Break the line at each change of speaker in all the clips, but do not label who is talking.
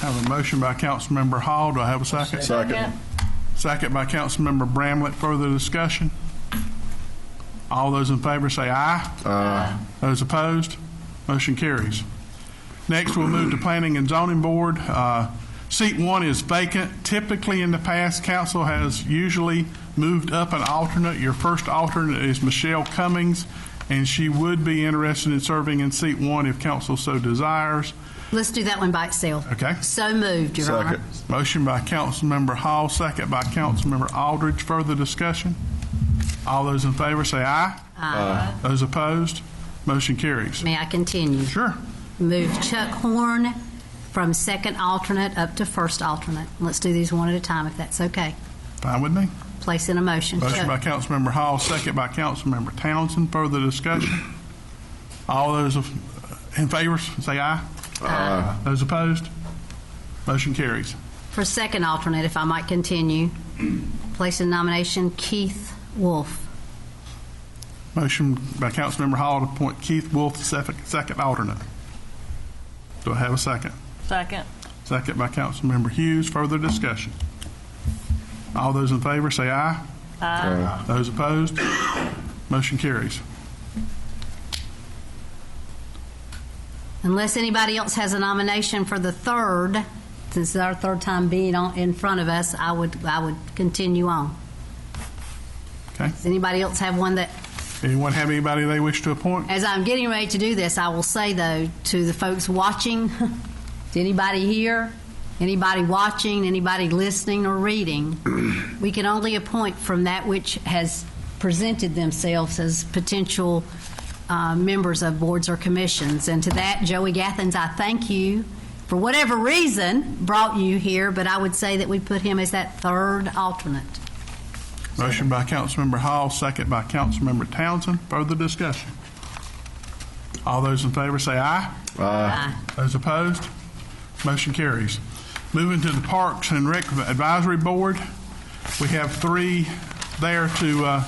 Have a motion by Councilmember Hall. Do I have a second?
Second.
Second by Councilmember Bramlett. Further discussion? All those in favor say aye. Aye. Those opposed? Motion carries. Next, we'll move to Planning and Zoning Board. Uh, Seat one is vacant. Typically, in the past, council has usually moved up an alternate. Your first alternate is Michelle Cummings, and she would be interested in serving in seat one if council so desires.
Let's do that one by itself.
Okay.
So moved, Your Honor.
Motion by Councilmember Hall, second by Councilmember Aldridge. Further discussion? All those in favor say aye. Aye. Those opposed? Motion carries.
May I continue?
Sure.
Move Chuck Horn from second alternate up to first alternate. Let's do these one at a time, if that's okay.
Fine with me.
Place in a motion.
Motion by
Chuck.
Councilmember Hall, second by Councilmember Townsend. Further discussion? All those of- in favor say aye. Aye. Those opposed? Motion carries.
For second alternate, if I might continue, place in nomination Keith Wolf.
Motion by Councilmember Hall to appoint Keith Wolf, sef- second alternate. Do I have a second?
Second.
Second by Councilmember Hughes. Further discussion? All those in favor say aye. Aye. Those opposed? Motion carries.
Unless anybody else has a nomination for the third, since it's our third time being on, in front of us, I would, I would continue on.
Okay.
Does anybody else have one that
Anyone have anybody they wish to appoint?
As I'm getting ready to do this, I will say though to the folks watching, to anybody here, anybody watching, anybody listening or reading, we can only appoint from that which has presented themselves as potential uh, members of boards or commissions. And to that, Joey Gathens, I thank you for whatever reason brought you here, but I would say that we put him as that third alternate.
Motion by Councilmember Hall, second by Councilmember Townsend. Further discussion? All those in favor say aye.
Aye.
Those opposed? Motion carries. Moving to the Parks and Rec Advisory Board, we have three there to uh,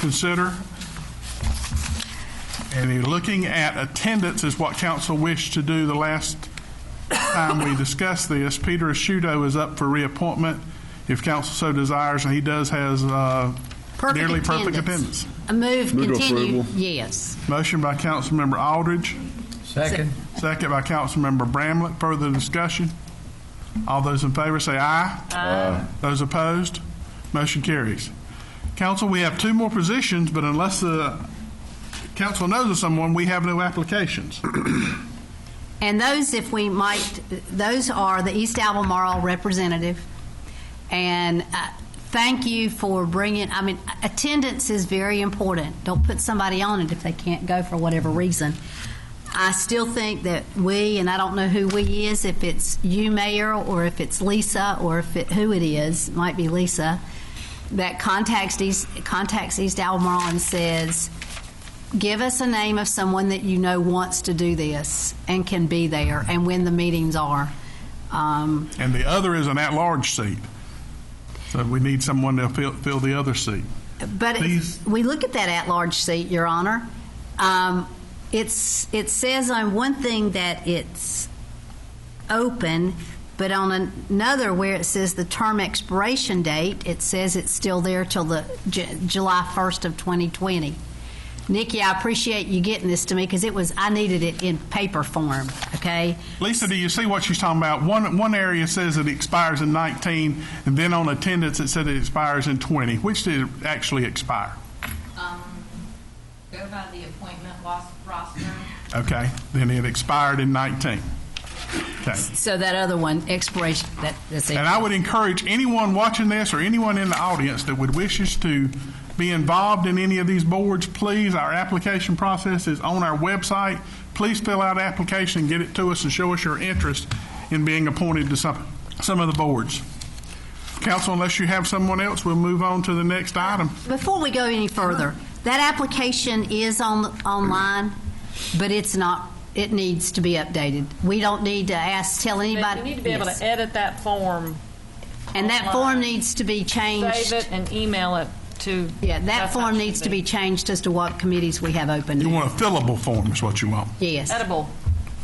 consider. And you're looking at attendance is what council wished to do the last time we discussed this. Peter Ashudo is up for reappointment if council so desires, and he does has uh,
Perfect
nearly perfect
attendance.
attendance.
A move,
Move to
continue.
approval.
Yes.
Motion by Councilmember Aldridge.
Second.
Second by Councilmember Bramlett. Further discussion? All those in favor say aye. Aye. Those opposed? Motion carries. Council, we have two more positions, but unless the council knows of someone, we have no applications.
And those, if we might, those are the East Albemarle representative. And uh, thank you for bringing, I mean, attendance is very important. Don't put somebody on it if they can't go for whatever reason. I still think that we, and I don't know who we is, if it's you, Mayor, or if it's Lisa, or if it, who it is, it might be Lisa, that contacts East, contacts East Albemarle and says, give us a name of someone that you know wants to do this and can be there and when the meetings are. Um,
And the other is an at-large seat. So we need someone to fill, fill the other seat.
But if
Please.
we look at that at-large seat, Your Honor. Um, it's it says on one thing that it's open, but on another where it says the term expiration date, it says it's still there till the J- July 1st of 2020. Nikki, I appreciate you getting this to me because it was I needed it in paper form. Okay.
Lisa, do you see what she's talking about? One, one area says it expires in 19, and then on attendance, it said it expires in 20. Which did it actually expire?
um, go by the appointment los- roster.
Okay, then it expired in 19. Okay.
So that other one expiration. That, that's it.
And I would encourage anyone watching this or anyone in the audience that would wish us to be involved in any of these boards, please, our application process is on our website. Please fill out application, get it to us, and show us your interest in being appointed to some, some of the boards. Council, unless you have someone else, we'll move on to the next item.
Before we go any further, that application is on, online, but it's not, it needs to be updated. We don't need to ask, tell anybody.
You need to be able
Yes.
to edit that form,
And that form
online.
needs to be
save
changed.
it, and email it to.
Yeah, that
That's how it
form
should
needs to be changed as to what committees we have
You
open.
want a fillable form is what you want.
Yes.
Edible.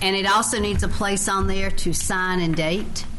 And it also needs a place on there to sign and date.